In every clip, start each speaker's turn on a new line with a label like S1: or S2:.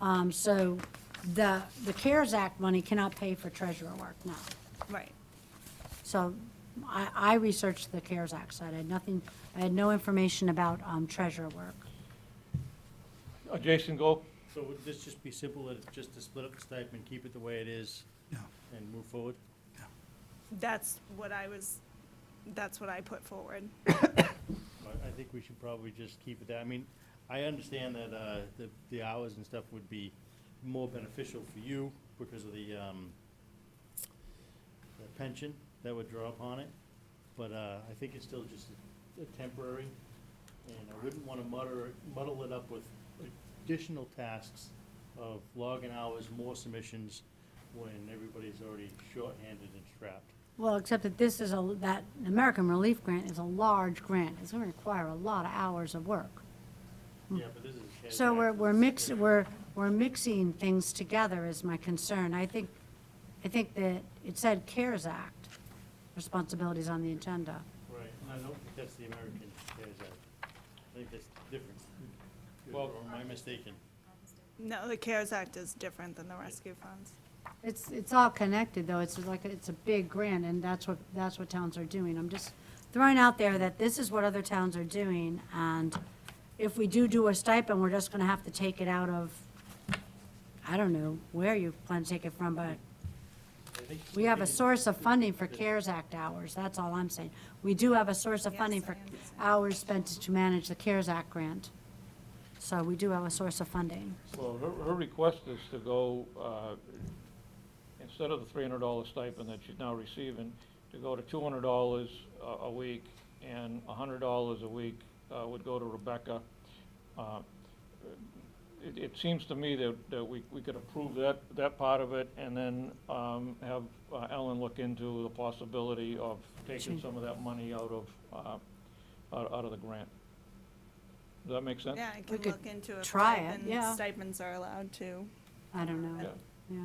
S1: Um, So the, the CARES Act money cannot pay for treasurer work, no.
S2: Right.
S1: So I, I researched the CARES Act side. I had nothing, I had no information about um, treasurer work.
S3: Uh, Jason, go.
S4: So would this just be simple, that it's just to split up the stipend, keep it the way it is,
S5: Yeah,
S4: and move forward?
S2: That's what I was, that's what I put forward.
S4: I, I think we should probably just keep it that, I mean, I understand that, uh, the, the hours and stuff would be more beneficial for you because of the, um, the pension that would draw upon it, but, uh, I think it's still just a- a temporary, and I wouldn't wanna muddle, muddle it up with additional tasks of logging hours, more submissions, when everybody's already shorthanded and strapped.
S1: Well, except that this is a, that American Relief Grant is a large grant. It's going to require a lot of hours of work.
S4: Yeah, but this is. a cash
S1: Hmm. So we're,
S4: act,
S1: we're
S4: this is
S1: mixing,
S4: different.
S1: we're, we're mixing things together is my concern. I think, I think that it said CARES Act responsibilities on the agenda.
S4: Right, and I don't think that's the American CARES Act. I think that's different. Well, or am I mistaken?
S2: No, the CARES Act is different than the rescue funds.
S1: It's, it's all connected, though. It's like, it's a big grant, and that's what, that's what towns are doing. I'm just throwing out there that this is what other towns are doing, and if we do do a stipend, we're just gonna have to take it out of, I don't know where you plan to take it from, but
S4: I think-
S1: we have
S4: I
S1: a
S4: think it-
S1: source of funding for CARES Act hours, that's all I'm saying. We do have a source of
S2: Yes,
S1: funding
S2: I
S1: for
S2: understand.
S1: hours spent to manage the CARES Act grant. So we do have a source of funding.
S3: Well, her, her request is to go, uh, instead of the three hundred dollar stipend that she's now receiving, to go to two hundred dollars a, a week, and hundred dollars a week, uh, would go to Rebecca. Uh, It, it seems to me that, that we, we could approve that, that part of it, and then, um, have uh, Ellen look into the possibility of taking
S1: Sure.
S3: some of that money out of, uh, out, out of the grant. Does that make sense?
S2: Yeah, I
S1: We
S2: can
S1: could
S2: look into it.
S1: try it, yeah.
S2: Stipends are allowed to.
S1: I don't know,
S3: Yeah.
S1: yeah.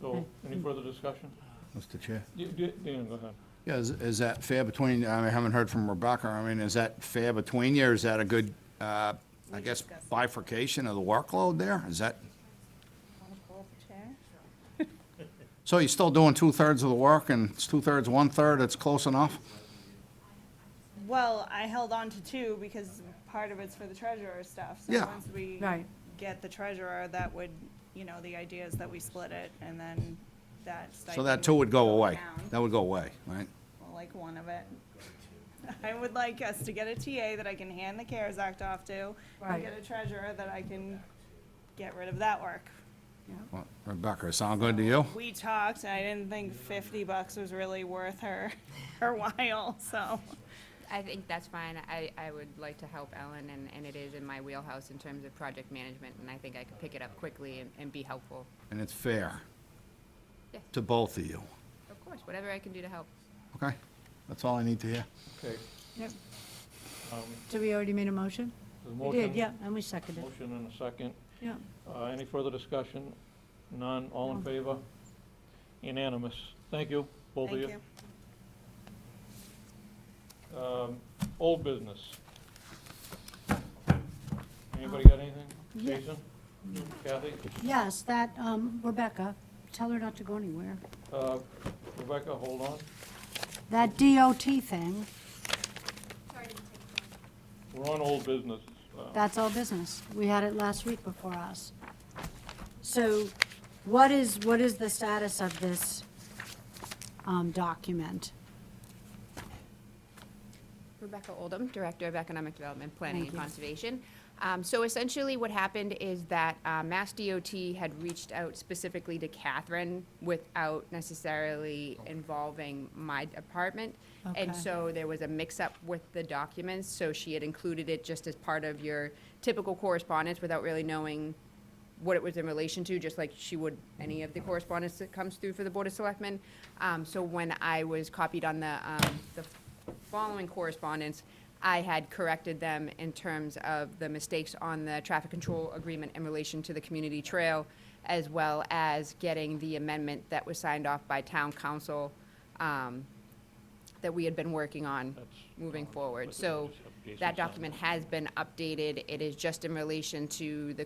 S3: So, any further discussion?
S5: Mr. Chair.
S3: Y- y- Dan, go ahead.
S5: Yeah, is, is that fair between, I haven't heard from Rebecca, I mean, is that fair between you, or is that a good, uh, I
S2: We
S5: guess
S2: discussed.
S5: bifurcation of the workload there? Is that,
S2: I'll pull the chair.
S5: so you're still doing two-thirds of the work, and it's two-thirds, one-third, it's close enough?
S2: Well, I held on to two because part of it's for the treasurer stuff. So
S5: Yeah.
S2: Once we
S1: Right.
S2: get the treasurer, that would, you know, the idea is that we split it and then that stipend.
S5: So that two would go away,
S2: down.
S5: that would go away, right?
S2: Well, like one of it. I would like us to get a TA that I can hand the CARES Act off to,
S1: Right.
S2: and get a treasurer that I can get rid of that work.
S5: Well, Rebecca, sound good to you?
S2: We talked, and I didn't think fifty bucks was really worth her, her while, so.
S6: I think that's fine. I, I would like to help Ellen, and, and it is in my wheelhouse in terms of project management, and I think I could pick it up quickly and, and be helpful.
S5: And it's fair
S6: Yes.
S5: to both of you,
S6: Of course, whatever I can do to help.
S5: okay? That's all I need to hear.
S3: Okay.
S1: Yep.
S3: um,
S1: Did we already made a motion?
S3: the
S1: We
S3: motion-
S1: did, yeah, and we seconded.
S3: Motion and a second.
S1: Yeah.
S3: Uh, Any further discussion? None, all in favor? Unanimous. Thank you, both of
S2: Thank
S3: you. Um, Old business. Anybody
S1: Um,
S3: got anything?
S1: Yeah.
S3: Jason? Kathy?
S1: Yes, that, um, Rebecca, tell her not to go anywhere.
S3: Uh, Rebecca, hold on.
S1: That DOT thing,
S3: We're on old business. Uh,
S1: that's all business. We had it last week before us. So what is, what is the status of this, um, document?
S6: Rebecca Oldham, Director of Economic Development, Planning
S1: Thank
S6: and
S1: you.
S6: Conservation. Um, So essentially, what happened is that uh, Mass DOT had reached out specifically to Catherine without necessarily involving my department.
S1: Okay.
S6: And so there was a mix-up with the documents, so she had included it just as part of your typical correspondence without really knowing what it was in relation to, just like she would any of the correspondence that comes through for the Board of Selectmen. Um, so when I was copied on the, um, the following correspondence, I had corrected them in terms of the mistakes on the traffic control agreement in relation to the community trail, as well as getting the amendment that was signed off by town council, um, that we had been working on
S3: That's
S6: moving
S3: gone,
S6: forward.
S3: but
S6: So
S3: it's up- Jason
S6: that
S3: signed
S6: document has been updated. It is just in relation to the